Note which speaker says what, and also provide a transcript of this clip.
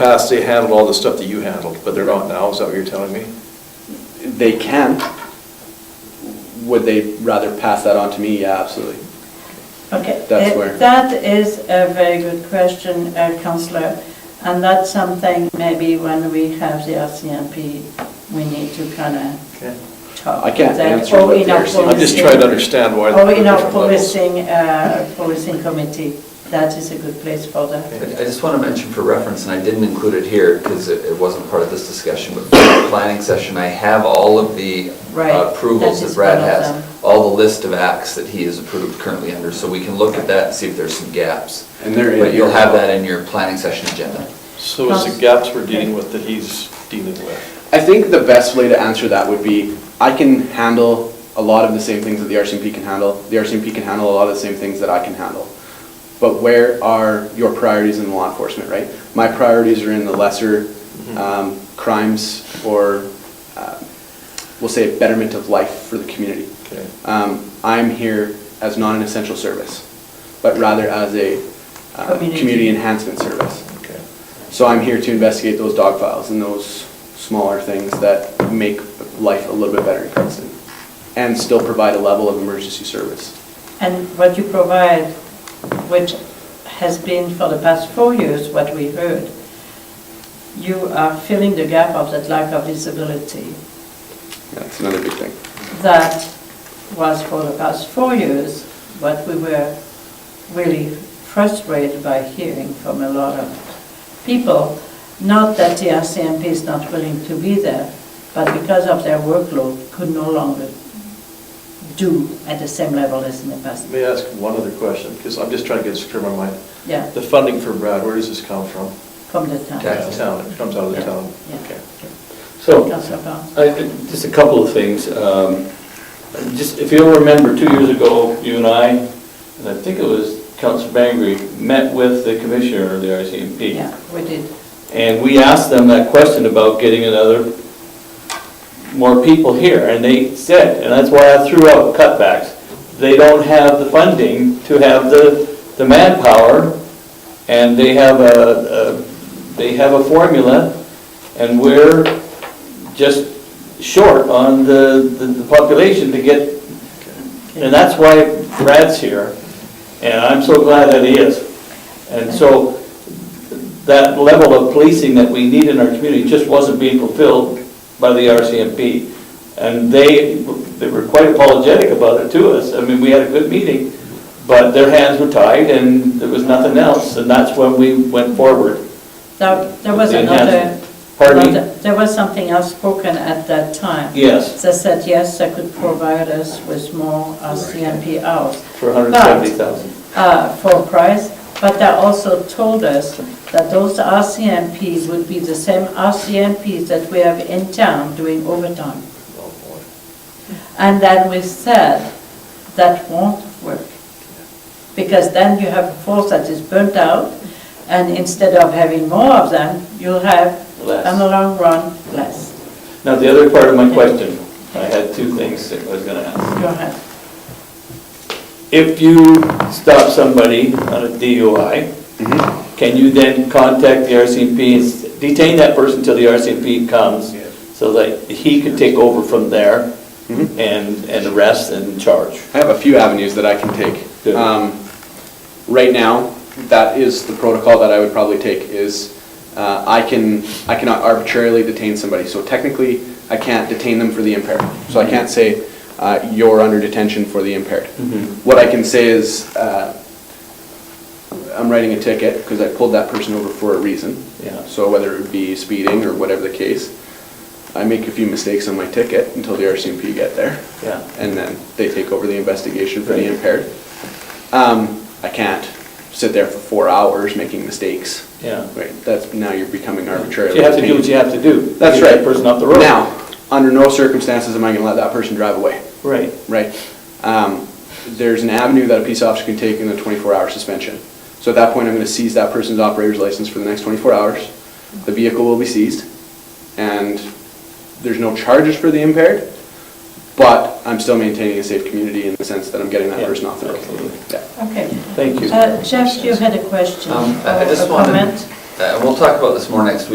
Speaker 1: past, they handled all the stuff that you handled, but they're not now, is that what you're telling me?
Speaker 2: They can. Would they rather pass that on to me? Yeah, absolutely.
Speaker 3: Okay.
Speaker 2: That's
Speaker 3: it-
Speaker 2: where-
Speaker 3: That is a very good question, uh, councillor, and that's something maybe when we have the RCMP, we need to kind of
Speaker 1: Okay.
Speaker 3: talk.
Speaker 2: I can't
Speaker 3: that,
Speaker 2: answer
Speaker 3: or
Speaker 2: what
Speaker 3: in our
Speaker 2: they're saying.
Speaker 1: I'm just trying to understand why.
Speaker 3: Or in our
Speaker 1: different levels.
Speaker 3: policing, uh, policing committee, that is a good place for that.
Speaker 1: Okay.
Speaker 4: I I just want to mention for reference, and I didn't include it here because it it wasn't part of this discussion, but for the planning session, I have all of the
Speaker 3: Right,
Speaker 4: uh, approvals
Speaker 3: that
Speaker 4: that
Speaker 3: is
Speaker 4: Brad
Speaker 3: one of them.
Speaker 4: has, all the list of acts that he is approved currently under, so we can look at that and see if there's some gaps.
Speaker 2: And there is-
Speaker 4: But you'll have that in your planning session agenda.
Speaker 1: So it's the gaps we're dealing with that he's dealing with.
Speaker 2: I think the best way to answer that would be, I can handle a lot of the same things that the RCMP can handle. The RCMP can handle a lot of the same things that I can handle. But where are your priorities in law enforcement, right? My priorities are in the lesser um, crimes or, uh, we'll say, betterment of life for the community.
Speaker 1: Okay.
Speaker 2: Um, I'm here as not an essential service, but rather as a uh,
Speaker 3: Community.
Speaker 2: community enhancement service.
Speaker 1: Okay.
Speaker 2: So I'm here to investigate those dog files and those smaller things that make life a little bit better in Princeton and still provide a level of emergency service.
Speaker 3: And what you provide, which has been for the past four years what we heard, you are filling the gap of that lack of visibility
Speaker 2: That's another big thing.
Speaker 3: that was for the past four years what we were really frustrated by hearing from a lot of people. Not that the RCMP is not willing to be there, but because of their workload, could no longer do at the same level as in the past.
Speaker 1: May I ask one other question? Because I'm just trying to get this clear in my mind.
Speaker 3: Yeah.
Speaker 1: The funding for Brad, where does this come from?
Speaker 3: From the town.
Speaker 4: Yeah.
Speaker 1: The Town, it comes out of the
Speaker 5: Yeah.
Speaker 1: town.
Speaker 3: Yeah.
Speaker 1: Okay.
Speaker 5: So,
Speaker 3: Councillor Barnes.
Speaker 5: I- I- just a couple of things. Um, Just, if you'll remember, two years ago, you and I, and I think it was Councilor Bangry, met with the commissioner of the RCMP.
Speaker 3: Yeah, we did.
Speaker 5: And we asked them that question about getting another, more people here, and they said, and that's why I threw out cutbacks. They don't have the funding to have the, the manpower, and they have a, a- they have a formula, and we're just short on the, the- the population to get, and that's why Brad's here, and I'm so glad that he is. And so, that level of policing that we need in our community just wasn't being fulfilled by the RCMP. And they, they were quite apologetic about it to us. I mean, we had a good meeting, but their hands were tied and there was nothing else. And that's when we went forward.
Speaker 3: Now, there was
Speaker 5: The
Speaker 3: another,
Speaker 5: enhancement. Pardon me?
Speaker 3: another- there was something else spoken at that time.
Speaker 5: Yes,
Speaker 3: They said, yes, they could provide us with more uh, RCMP hours
Speaker 5: for 170,000.
Speaker 3: uh, for price, but they also told us that those RCMPs would be the same RCMPs that we have in town doing overtime.
Speaker 1: Oh, boy.
Speaker 3: And then we said, that won't work. Because then you have a force that is burnt out, and instead of having more of them, you'll have,
Speaker 5: Less.
Speaker 3: in the long run, less.
Speaker 5: Now, the other part of my question, I had two things that I was going to ask.
Speaker 3: Go ahead.
Speaker 5: If you stop somebody on a DUI, can you then contact the RCMP, and s- detain that person till the RCMP comes, so that he could take over from there
Speaker 2: Mhm.
Speaker 5: and, and arrest and charge?
Speaker 2: I have a few avenues that I can take.
Speaker 5: Good.
Speaker 2: Um, Right now, that is the protocol that I would probably take is uh, I can, I cannot arbitrarily detain somebody. So technically, I can't detain them for the impaired. So I can't say, uh, you're under detention for the impaired.
Speaker 5: Mm-hmm.
Speaker 2: What I can say is, uh, I'm writing a ticket because I pulled that person over for a reason.
Speaker 5: Yeah.
Speaker 2: So whether it be speeding or whatever the case, I make a few mistakes on my ticket until the RCMP get there
Speaker 5: Yeah.
Speaker 2: and then they take over the investigation for the
Speaker 5: Right.
Speaker 2: impaired. Um, I can't sit there for four hours making mistakes.
Speaker 5: Yeah.
Speaker 2: Right, that's, now you're becoming arbitrary.
Speaker 5: You have to do what you have to do.
Speaker 2: That's
Speaker 5: Get that
Speaker 2: right.
Speaker 5: person off the road.
Speaker 2: Now, under no circumstances am I gonna let that person drive away,
Speaker 5: Right.
Speaker 2: right? Um, there's an avenue that a peace officer can take in a twenty-four hour suspension. So at that point, I'm gonna seize that person's operator's license for the next twenty-four hours. The vehicle will be seized, and there's no charges for the impaired, but I'm still maintaining a safe community in the sense that I'm getting that
Speaker 5: Yeah,
Speaker 2: person off the road.
Speaker 5: absolutely.
Speaker 2: Yeah.
Speaker 3: Okay.
Speaker 5: Thank you.
Speaker 3: Uh, Jeff, you had a question
Speaker 4: Um, I I
Speaker 3: or a
Speaker 4: just wanted,
Speaker 3: comment?
Speaker 4: I uh, we'll talk about this more next week.